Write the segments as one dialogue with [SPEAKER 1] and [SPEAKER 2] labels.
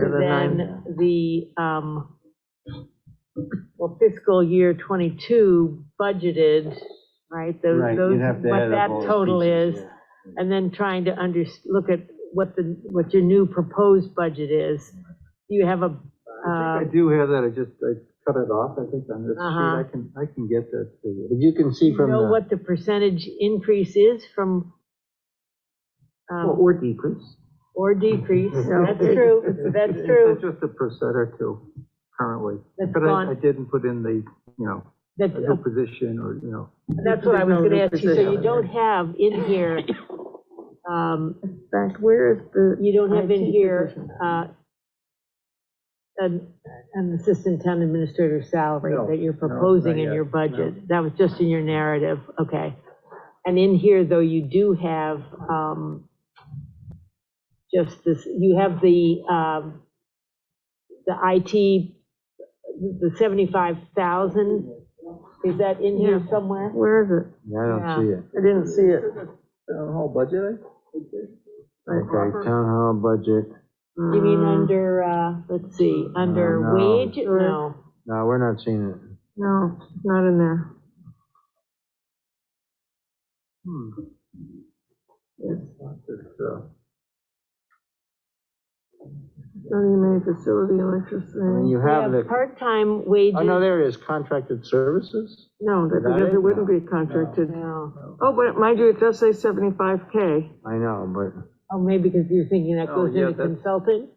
[SPEAKER 1] So
[SPEAKER 2] Right.
[SPEAKER 1] then the, um, well, fiscal year 22 budgeted, right? those-
[SPEAKER 2] Right,
[SPEAKER 1] those-
[SPEAKER 2] you'd have to
[SPEAKER 1] What
[SPEAKER 2] add up
[SPEAKER 1] that
[SPEAKER 2] all the
[SPEAKER 1] total
[SPEAKER 2] pieces,
[SPEAKER 1] is,
[SPEAKER 2] yeah.
[SPEAKER 1] and then trying to under, look at what the, what your new proposed budget is. Do you have a,
[SPEAKER 2] I
[SPEAKER 1] uh,
[SPEAKER 2] think I do have that, I just, I cut it off, I think on this
[SPEAKER 1] Uh-huh.
[SPEAKER 2] sheet, I can, I can get that to you. But you can see from
[SPEAKER 1] know
[SPEAKER 2] the.
[SPEAKER 1] what the percentage increase is from, um,
[SPEAKER 2] Or decrease.
[SPEAKER 1] or decrease? That's true, that's
[SPEAKER 2] It's-
[SPEAKER 1] true.
[SPEAKER 2] It's just a percent or two currently.
[SPEAKER 1] That's
[SPEAKER 2] But I,
[SPEAKER 1] gone.
[SPEAKER 2] I didn't put in the, you know,
[SPEAKER 1] That's
[SPEAKER 2] a new position or, you know.
[SPEAKER 1] That's what I was gonna ask you, so you
[SPEAKER 2] Position.
[SPEAKER 1] don't have in here, um,
[SPEAKER 3] In fact, where is the?
[SPEAKER 1] you don't have in
[SPEAKER 3] IT
[SPEAKER 1] here,
[SPEAKER 3] position?
[SPEAKER 1] uh, an, an assistant town administrator salary
[SPEAKER 2] No,
[SPEAKER 1] that you're
[SPEAKER 2] no,
[SPEAKER 1] proposing
[SPEAKER 2] not
[SPEAKER 1] in your
[SPEAKER 2] yet,
[SPEAKER 1] budget. That was just in your narrative, okay. And in here, though, you do have, um, just this, you have the, um, the IT, the seventy-five thousand, is that in here
[SPEAKER 3] Yeah.
[SPEAKER 1] somewhere?
[SPEAKER 3] Where is it?
[SPEAKER 2] I
[SPEAKER 1] don't see
[SPEAKER 2] it.
[SPEAKER 3] I didn't see it.
[SPEAKER 2] Town hall budget?
[SPEAKER 3] Okay,
[SPEAKER 2] town hall budget,
[SPEAKER 1] You mean under, uh, let's see, under
[SPEAKER 2] Uh, no.
[SPEAKER 1] wage? No.
[SPEAKER 2] no, we're not seeing it.
[SPEAKER 3] No, it's not in there.
[SPEAKER 2] It's, uh,
[SPEAKER 3] Not even a facility electricity.
[SPEAKER 2] you
[SPEAKER 1] We have part-time wages.
[SPEAKER 4] oh,
[SPEAKER 2] there it is, contracted services?
[SPEAKER 3] No, that,
[SPEAKER 2] Is that
[SPEAKER 3] because
[SPEAKER 2] it?
[SPEAKER 3] it wouldn't be contracted.
[SPEAKER 1] No.
[SPEAKER 3] Oh, but mind you, it does say seventy-five K.
[SPEAKER 2] I know, but.
[SPEAKER 1] Oh, maybe because you're thinking that
[SPEAKER 2] Oh,
[SPEAKER 1] goes
[SPEAKER 2] yeah,
[SPEAKER 1] into
[SPEAKER 2] that's-
[SPEAKER 1] consultant?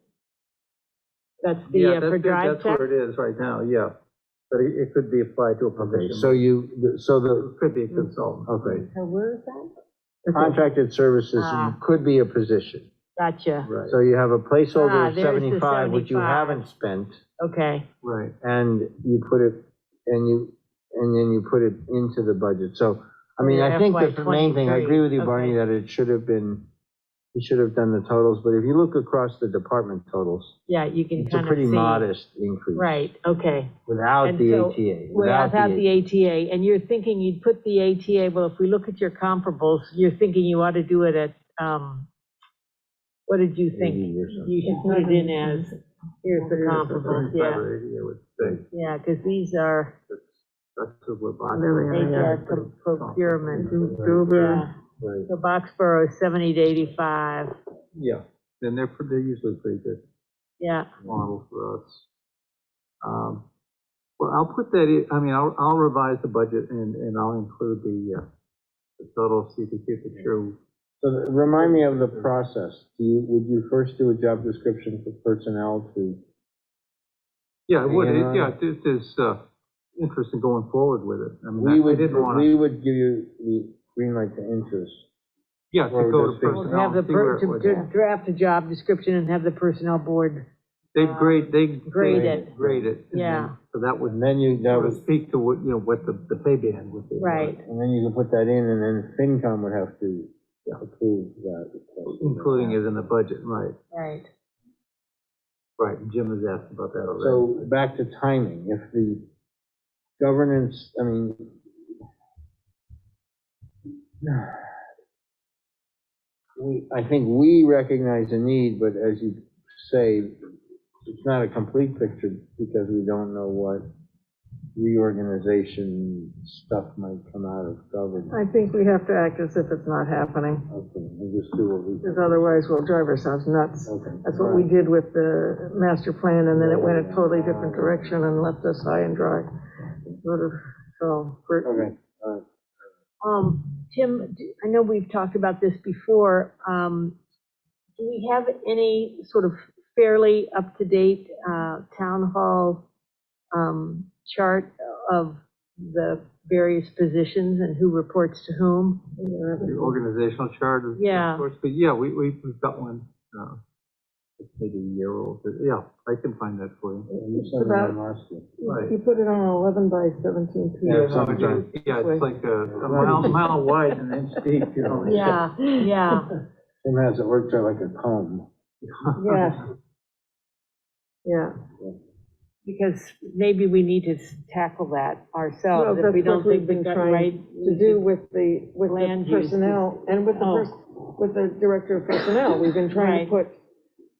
[SPEAKER 1] That's the,
[SPEAKER 2] Yeah,
[SPEAKER 1] uh, for
[SPEAKER 2] that's,
[SPEAKER 1] drive
[SPEAKER 2] that's
[SPEAKER 1] tech?
[SPEAKER 2] where it is right now, yeah. But it, it could be applied to a
[SPEAKER 4] Okay,
[SPEAKER 2] position.
[SPEAKER 4] so you, so the,
[SPEAKER 2] It could be a consultant.
[SPEAKER 4] okay,
[SPEAKER 1] So where is that?
[SPEAKER 4] contracted services
[SPEAKER 1] Ah.
[SPEAKER 4] could be a position.
[SPEAKER 1] Gotcha,
[SPEAKER 2] Right,
[SPEAKER 4] So you have a
[SPEAKER 1] Ah,
[SPEAKER 4] placeholder of
[SPEAKER 1] there's the
[SPEAKER 4] 75, which you
[SPEAKER 1] 75.
[SPEAKER 4] haven't spent,
[SPEAKER 1] okay.
[SPEAKER 2] right.
[SPEAKER 4] and you put it, and you, and then you put it into the budget. So, I mean, I think that's the main thing, I agree with you, Barney,
[SPEAKER 1] FY23,
[SPEAKER 4] that it should have been, you should have done the totals, but if you look across the department totals,
[SPEAKER 1] Yeah, you can
[SPEAKER 4] it's a
[SPEAKER 1] kind of see.
[SPEAKER 4] pretty modest increase.
[SPEAKER 1] Right, okay.
[SPEAKER 4] Without
[SPEAKER 1] And
[SPEAKER 4] the
[SPEAKER 1] so-
[SPEAKER 4] ATA,
[SPEAKER 1] Without the ATA, and you're thinking you'd put the ATA, well, if we look at your comparables, you're thinking you ought to do it at, um, what did you think?
[SPEAKER 4] 80 or something.
[SPEAKER 1] You should put it in as, here's the comparables,
[SPEAKER 2] Seventy-five
[SPEAKER 1] yeah,
[SPEAKER 2] or eighty, I would say.
[SPEAKER 1] yeah, because these are
[SPEAKER 2] That's what we're buying.
[SPEAKER 3] There we are,
[SPEAKER 1] HR com- procurement.
[SPEAKER 3] Dover.
[SPEAKER 1] Yeah,
[SPEAKER 2] Right,
[SPEAKER 1] so Boxborough is seventy to eighty-five,
[SPEAKER 2] yeah, then they're, pre- they're usually pretty good
[SPEAKER 1] yeah,
[SPEAKER 2] model for us. Um, Well, I'll put that, in- I mean, I'll, I'll revise the budget and, and I'll include the, uh, the total, see if we keep it true.
[SPEAKER 4] So th- remind me of the process. Do you, would you first do a job description for personnel to?
[SPEAKER 2] Yeah, it would, It-
[SPEAKER 4] Yeah.
[SPEAKER 2] yeah, this is, uh, interesting going forward with it. I
[SPEAKER 4] We
[SPEAKER 2] mean, I- I
[SPEAKER 4] would,
[SPEAKER 2] didn't wanna.
[SPEAKER 4] we would give you the green light to interest.
[SPEAKER 2] Yeah, to
[SPEAKER 4] Or
[SPEAKER 2] go to
[SPEAKER 4] just think-
[SPEAKER 1] We'll have
[SPEAKER 2] personnel,
[SPEAKER 1] the,
[SPEAKER 2] and see where
[SPEAKER 1] per-
[SPEAKER 2] it
[SPEAKER 1] to
[SPEAKER 2] would.
[SPEAKER 1] to draft a job description and have the personnel board,
[SPEAKER 2] They grade, they.
[SPEAKER 1] Uh, grade
[SPEAKER 2] they
[SPEAKER 1] it.
[SPEAKER 2] Grade it. and then-
[SPEAKER 1] Yeah.
[SPEAKER 2] So that would,
[SPEAKER 4] And then you, that
[SPEAKER 2] that would
[SPEAKER 4] was,
[SPEAKER 2] speak to what, you know, what the, the pay band would be.
[SPEAKER 1] right,
[SPEAKER 4] and then you can put that in and then FinCom would have to approve that. request.
[SPEAKER 2] Including it in the budget, right,
[SPEAKER 1] right.
[SPEAKER 2] right, Jim has asked about that already.
[SPEAKER 4] So back to timing, if the governance, I mean. We, I think we recognize the need, but as you say, it's not a complete picture because we don't know what reorganization stuff might come out of governance.
[SPEAKER 3] I think we have to act as if it's not happening,
[SPEAKER 4] Okay, we just do what we.
[SPEAKER 3] because otherwise we'll drive ourselves nuts.
[SPEAKER 4] Okay.
[SPEAKER 3] That's what we did with the master plan, and then it went a totally different direction and left us high and dry. Sort of, so, we're-
[SPEAKER 4] Okay, all right.
[SPEAKER 1] Um, Tim, d- I know we've talked about this before, um, do we have any sort of fairly up-to-date, uh, town hall, um, chart of the various positions and who reports to whom?
[SPEAKER 2] The organizational chart. of-
[SPEAKER 1] Yeah.
[SPEAKER 2] Of course, but yeah, we, we, we've got one, uh, it's maybe a year old, but yeah, I can find that for you.
[SPEAKER 4] You send
[SPEAKER 3] about-
[SPEAKER 4] them last year.
[SPEAKER 2] Right.
[SPEAKER 3] you put it on an 11 by 17 piece.
[SPEAKER 4] Yeah,
[SPEAKER 2] so
[SPEAKER 4] something
[SPEAKER 2] it's- Yeah, it's like a, a mile, mile wide and an inch deep, you know?
[SPEAKER 1] Yeah, yeah.
[SPEAKER 4] Tim has it worked out like a comb.
[SPEAKER 3] Yeah. Yeah.
[SPEAKER 1] Because maybe we need to s- tackle that
[SPEAKER 3] Well,
[SPEAKER 1] ourselves if
[SPEAKER 3] that's
[SPEAKER 1] we don't
[SPEAKER 3] what we've
[SPEAKER 1] think we
[SPEAKER 3] been
[SPEAKER 1] got it right.
[SPEAKER 3] trying to do with the, with the
[SPEAKER 1] Land use.
[SPEAKER 3] personnel, and with the,
[SPEAKER 1] Oh.
[SPEAKER 3] pers- with the director of personnel. We've been trying to put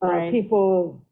[SPEAKER 3] uh,
[SPEAKER 1] Right.
[SPEAKER 3] people